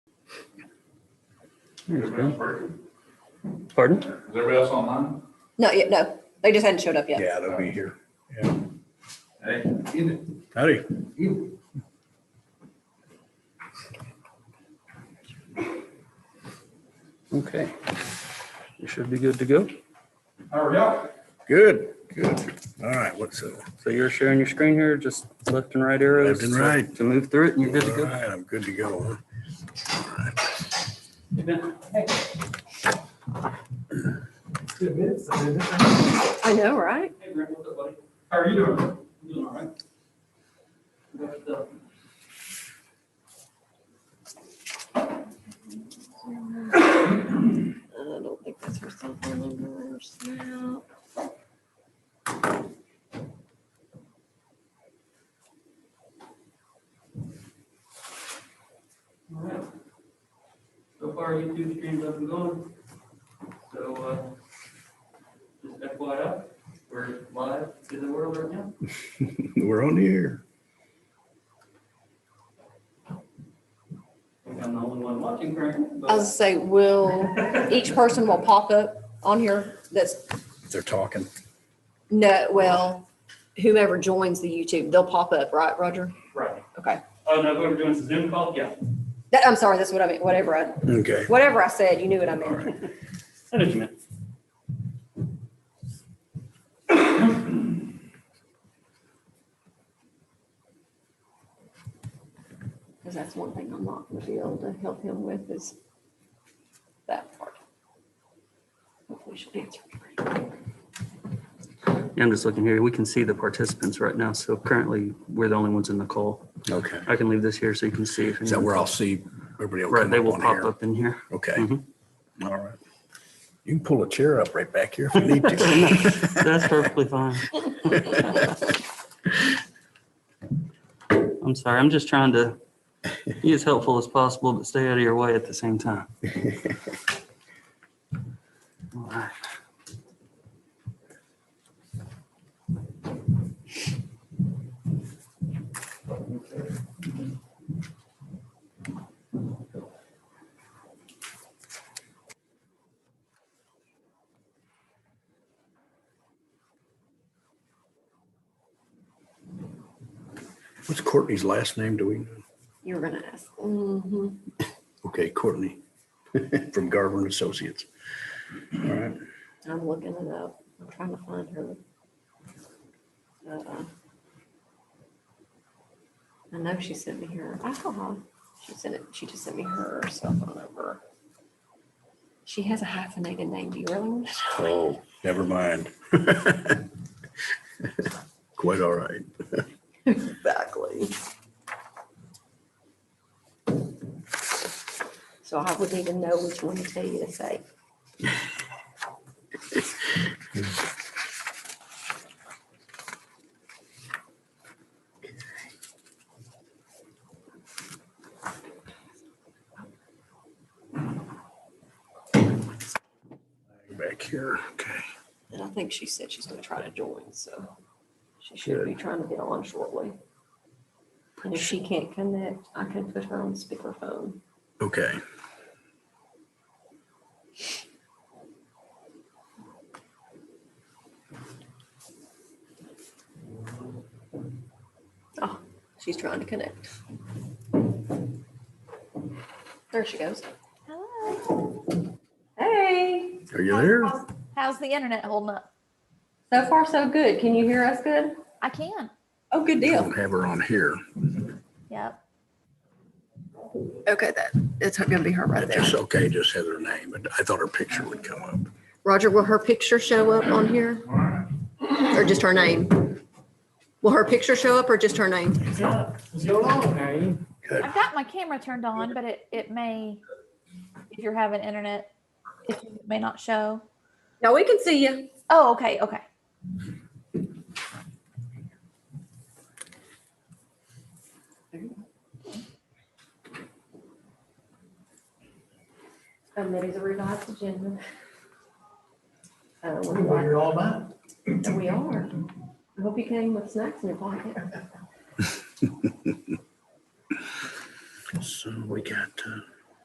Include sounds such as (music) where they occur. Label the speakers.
Speaker 1: Everybody else working?
Speaker 2: Pardon?
Speaker 1: Is everybody else online?
Speaker 3: Not yet, no. They just hadn't showed up yet.
Speaker 4: Yeah, they'll be here.
Speaker 1: Hey, eat it,
Speaker 4: Howdy.
Speaker 1: eat it.
Speaker 2: Okay. You should be good to go.
Speaker 1: How are y'all?
Speaker 4: Good, good. All right, what's it?
Speaker 2: So you're sharing your screen here, just left and right arrows.
Speaker 4: Left and right.
Speaker 2: To move through it and you're good to
Speaker 4: All
Speaker 2: go.
Speaker 4: right, I'm good to go. (laughs) huh?
Speaker 3: I know, right?
Speaker 1: Hey, Brent, what's up, buddy? How are you doing? You doing all right? What's up?
Speaker 3: I don't think that's her cell phone number or snap.
Speaker 5: All right. So far, YouTube stream's up and going. So, uh, just FYI, we're live to the world right now.
Speaker 4: We're on the air.
Speaker 5: I think I'm the only one watching currently,
Speaker 3: I was gonna
Speaker 5: but.
Speaker 3: say, will, each person will pop up on here that's,
Speaker 4: They're talking.
Speaker 3: no, well, whomever joins the YouTube, they'll pop up, right, Roger?
Speaker 5: Right.
Speaker 3: Okay.
Speaker 5: Oh, no, we're doing a Zoom call? Yeah.
Speaker 3: That, I'm sorry, that's what I meant, whatever I,
Speaker 4: Okay.
Speaker 3: whatever I said, you knew what I meant.
Speaker 5: I know what you meant.
Speaker 3: Because that's one thing I'm not gonna be able to help him with is that part. Hopefully she'll answer.
Speaker 2: Yeah, I'm just looking here. We can see the participants right now. So currently, we're the only ones in the call.
Speaker 4: Okay.
Speaker 2: I can leave this here so you can see. if
Speaker 4: Is that
Speaker 2: anyone-
Speaker 4: where I'll see everybody will
Speaker 2: Right,
Speaker 4: come
Speaker 2: they
Speaker 4: up
Speaker 2: will
Speaker 4: on
Speaker 2: pop
Speaker 4: here?
Speaker 2: up in here.
Speaker 4: Okay.
Speaker 2: Mhm.
Speaker 4: All right. You can pull a chair up right back here if you
Speaker 2: (laughs)
Speaker 4: need to.
Speaker 2: That's perfectly
Speaker 4: (laughs)
Speaker 2: fine. I'm sorry, I'm just trying to be as helpful as possible, but stay out of your way at the same
Speaker 4: (laughs)
Speaker 2: time. All right.
Speaker 4: What's Courtney's last name? Do we? know?
Speaker 3: You were gonna ask. Mm-hmm.
Speaker 4: Okay,
Speaker 2: (laughs)
Speaker 4: Courtney from Garver and Associates. All right.
Speaker 3: I'm looking it up. I'm trying to find her. Uh, I know she sent me her alcohol. She sent it, she just sent me her cell phone number. She has a hyphenated name. Do you really want to know?
Speaker 4: Oh, never mind. (laughs) Quite all right.
Speaker 3: Exactly. So I wouldn't even know which one to tell you to say.
Speaker 4: Back here. Okay.
Speaker 3: And I think she said she's gonna try to join, so she should be trying to get on shortly. And if she can't connect, I can put her on speakerphone.
Speaker 4: Okay.
Speaker 3: Oh, she's trying to connect. There she goes.
Speaker 6: Hello.
Speaker 3: Hey,
Speaker 4: Are you there?
Speaker 6: How's, how's the internet holding up?
Speaker 3: so far so good. Can you hear us good?
Speaker 6: I can.
Speaker 3: Oh, good
Speaker 4: I
Speaker 3: deal.
Speaker 4: don't have her on here.
Speaker 6: Yep.
Speaker 3: Okay, that, it's gonna be her right
Speaker 4: It's okay, just have her name, but I thought her picture would come up.
Speaker 3: Roger, will her picture show up on here? Or just her name? Will her picture show up or just her name?
Speaker 5: What's going on? How are you?
Speaker 6: I've got my camera turned on, but it, it may, if you're having internet, it may not show.
Speaker 3: No, we can see you.
Speaker 6: Oh, okay, okay.
Speaker 3: Committee's a revised agenda. Uh, we're
Speaker 7: Well,
Speaker 3: glad
Speaker 7: You're all mine.
Speaker 3: that We are. I hope you came with snacks in your pocket.
Speaker 4: So we got, uh,